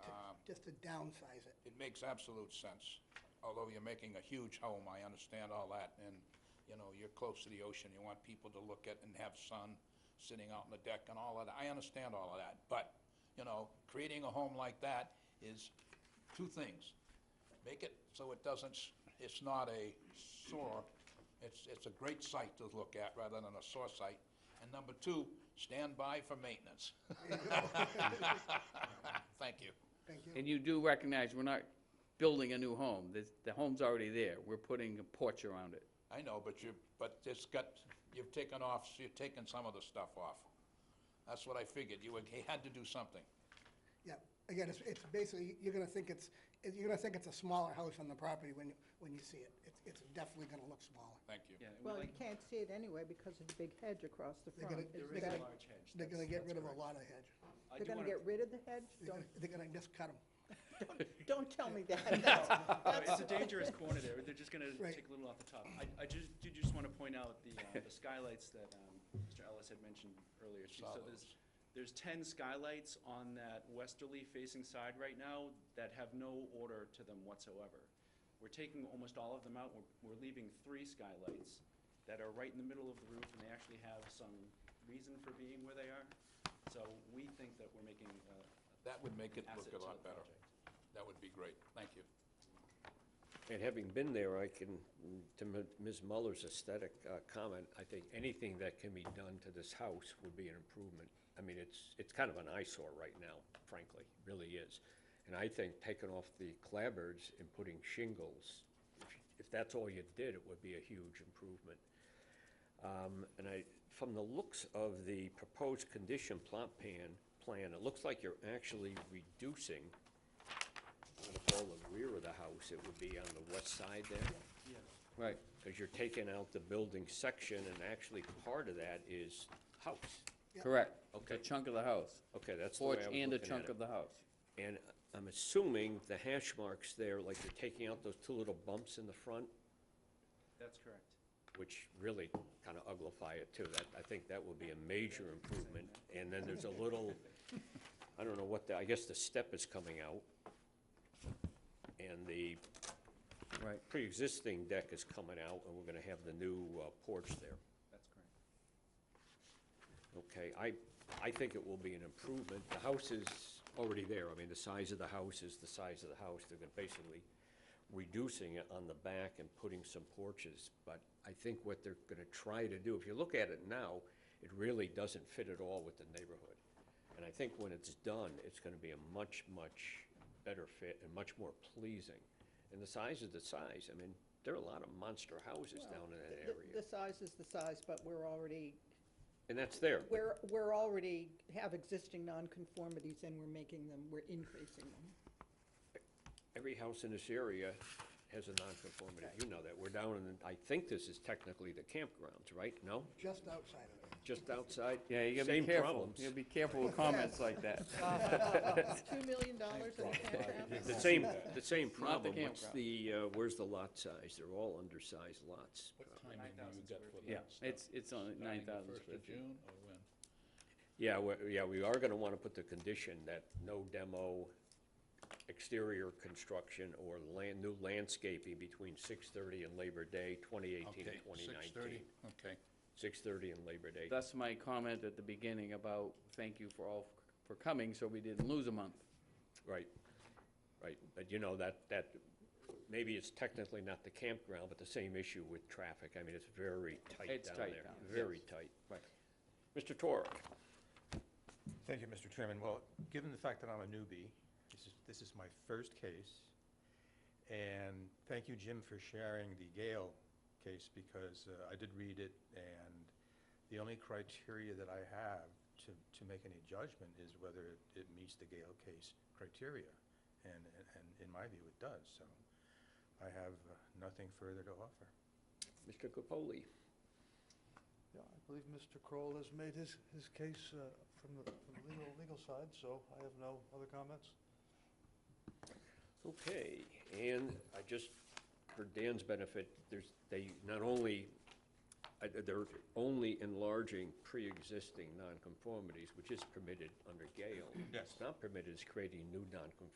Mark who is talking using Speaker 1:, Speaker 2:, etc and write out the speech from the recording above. Speaker 1: Um,
Speaker 2: just to downsize it.
Speaker 3: It makes absolute sense. Although you're making a huge home, I understand all that, and, you know, you're close to the ocean, you want people to look at and have sun sitting out on the deck and all of that. I understand all of that, but, you know, creating a home like that is two things. Make it so it doesn't, s- it's not a sore, it's, it's a great site to look at rather than a sore site. And number two, stand by for maintenance. Thank you.
Speaker 2: Thank you.
Speaker 4: And you do recognize we're not building a new home. This- The home's already there. We're putting a porch around it.
Speaker 3: I know, but you, but it's got, you've taken off, you've taken some of the stuff off. That's what I figured, you would- he had to do something.
Speaker 2: Yeah, again, it's, it's basically, you're gonna think it's, you're gonna think it's a smaller house on the property when, you when you see it. It's, it's definitely gonna look smaller.
Speaker 3: Thank you.
Speaker 5: Well, you can't see it anyway because of the big hedge across the
Speaker 2: They're
Speaker 5: front.
Speaker 2: gonna,
Speaker 5: It's
Speaker 2: they're
Speaker 5: better-
Speaker 2: gonna,
Speaker 1: large hedge,
Speaker 2: they're gonna
Speaker 1: that's-
Speaker 2: get
Speaker 1: that's
Speaker 2: rid of a lot
Speaker 1: correct.
Speaker 2: of hedge.
Speaker 1: I
Speaker 5: They're
Speaker 1: do
Speaker 5: gonna
Speaker 1: wanna-
Speaker 5: get rid of the hedge?
Speaker 2: They're
Speaker 5: Don't,
Speaker 2: gonna, they're gonna just cut them.
Speaker 5: don't tell me that, no.
Speaker 1: No, It's a dangerous corner there, they're just gonna
Speaker 2: Right.
Speaker 1: take a little off the top. I, I just, did just wanna point out the, uh, the skylights that, um, Mr. Ellis had mentioned earlier. too. So there's, there's ten skylights on that westerly facing side right now that have no order to them whatsoever. We're taking almost all of them out, we're, we're leaving three skylights that are right in the middle of the roof, and they actually have some reason for being where they are. So we think that we're making, uh,
Speaker 3: That would make it look a
Speaker 1: Asset to
Speaker 3: lot
Speaker 1: the
Speaker 3: better.
Speaker 1: project.
Speaker 3: That would be great, thank you.
Speaker 6: And having been there, I can, to M- Ms. Muller's aesthetic uh, comment, I think anything that can be done to this house would be an improvement. I mean, it's, it's kind of an eyesore right now, frankly, really is. And I think taking off the clapboards and putting shingles, if- if that's all you did, it would be a huge improvement. Um, And I, from the looks of the proposed condition plot plan, plan, it looks like you're actually reducing on the whole, the rear of the house, it would be on the west side there.
Speaker 4: Right.
Speaker 6: Because you're taking out the building section, and actually part of that is house.
Speaker 4: Correct.
Speaker 6: Okay.
Speaker 4: A chunk of the house.
Speaker 6: Okay, that's the way I
Speaker 4: Porch
Speaker 6: was
Speaker 4: and a
Speaker 6: looking at
Speaker 4: chunk
Speaker 6: it.
Speaker 4: of the house.
Speaker 6: And I'm assuming the hash marks there, like you're taking out those two little bumps in the front,
Speaker 1: that's correct.
Speaker 6: which really kind of uglify it too. That, I think that will be a major improvement. And then there's a little, I don't know what the, I guess the step is coming out. And the
Speaker 4: Right.
Speaker 6: pre-existing deck is coming out, and we're gonna have the new uh, porch there.
Speaker 1: That's correct.
Speaker 6: Okay, I, I think it will be an improvement. The house is already there. I mean, the size of the house is the size of the house. They're gonna basically reducing it on the back and putting some porches. But I think what they're gonna try to do, if you look at it now, it really doesn't fit at all with the neighborhood. And I think when it's done, it's gonna be a much, much better fit and much more pleasing. And the size is the size. I mean, there are a lot of monster houses down in that
Speaker 5: The- The
Speaker 6: area.
Speaker 5: size is the size, but we're already,
Speaker 6: And that's there.
Speaker 5: we're, we're already have existing nonconformities and we're making them, we're increasing them.
Speaker 6: every house in this area has a nonconformity. You know that. We're down in, I think this is technically the campgrounds, right? No?
Speaker 2: Just outside of it.
Speaker 6: Just outside?
Speaker 4: Yeah, you gotta be
Speaker 6: Same
Speaker 4: careful.
Speaker 6: problems.
Speaker 4: You gotta be careful with comments like that.
Speaker 5: Two million dollars in a campground?
Speaker 6: The same, the same
Speaker 4: the
Speaker 6: problem. What's
Speaker 4: campground.
Speaker 6: the, uh, where's the lot size? They're all undersized lots.
Speaker 3: What timing do you
Speaker 1: 9,000
Speaker 3: got
Speaker 1: square
Speaker 3: for
Speaker 1: feet.
Speaker 4: Yeah,
Speaker 3: that stuff?
Speaker 4: it's, it's only
Speaker 3: Starting
Speaker 4: nine
Speaker 3: the
Speaker 4: thousand
Speaker 3: first
Speaker 4: square
Speaker 3: of
Speaker 4: feet.
Speaker 3: June or when?
Speaker 6: Yeah, we- yeah, we are gonna wanna put the condition that no demo, exterior construction, or land, new landscaping between six-thirty and Labor Day, twenty eighteen
Speaker 3: Okay,
Speaker 6: and twenty nineteen.
Speaker 3: six thirty, okay.
Speaker 6: Six-thirty and Labor Day.
Speaker 4: That's my comment at the beginning about thank you for all for coming, so we didn't lose a month.
Speaker 6: Right, right, but you know, that, that, maybe it's technically not the campground, but the same issue with traffic, I mean, it's very tight
Speaker 4: It's
Speaker 6: down there.
Speaker 4: tight down,
Speaker 6: Very tight. Right. Mr. Torek,
Speaker 7: Thank you, Mr. Chairman. Well, given the fact that I'm a newbie, this is, this is my first case, and thank you, Jim, for sharing the Gale case, because uh, I did read it, and the only criteria that I have to, to make any judgment is whether it- it meets the Gale case criteria, and, and- and in my view, it does, so I have uh, nothing further to offer.
Speaker 6: Mr. Capoli,
Speaker 8: Yeah, I believe Mr. Kroll has made his, his case uh, from the from the legal, legal side, so I have no other comments.
Speaker 6: okay, and I just, for Dan's benefit, there's, they not only, I- they're only enlarging pre-existing nonconformities, which is permitted under Gale.
Speaker 7: Yes.
Speaker 6: It's not permitted is creating new nonconformities.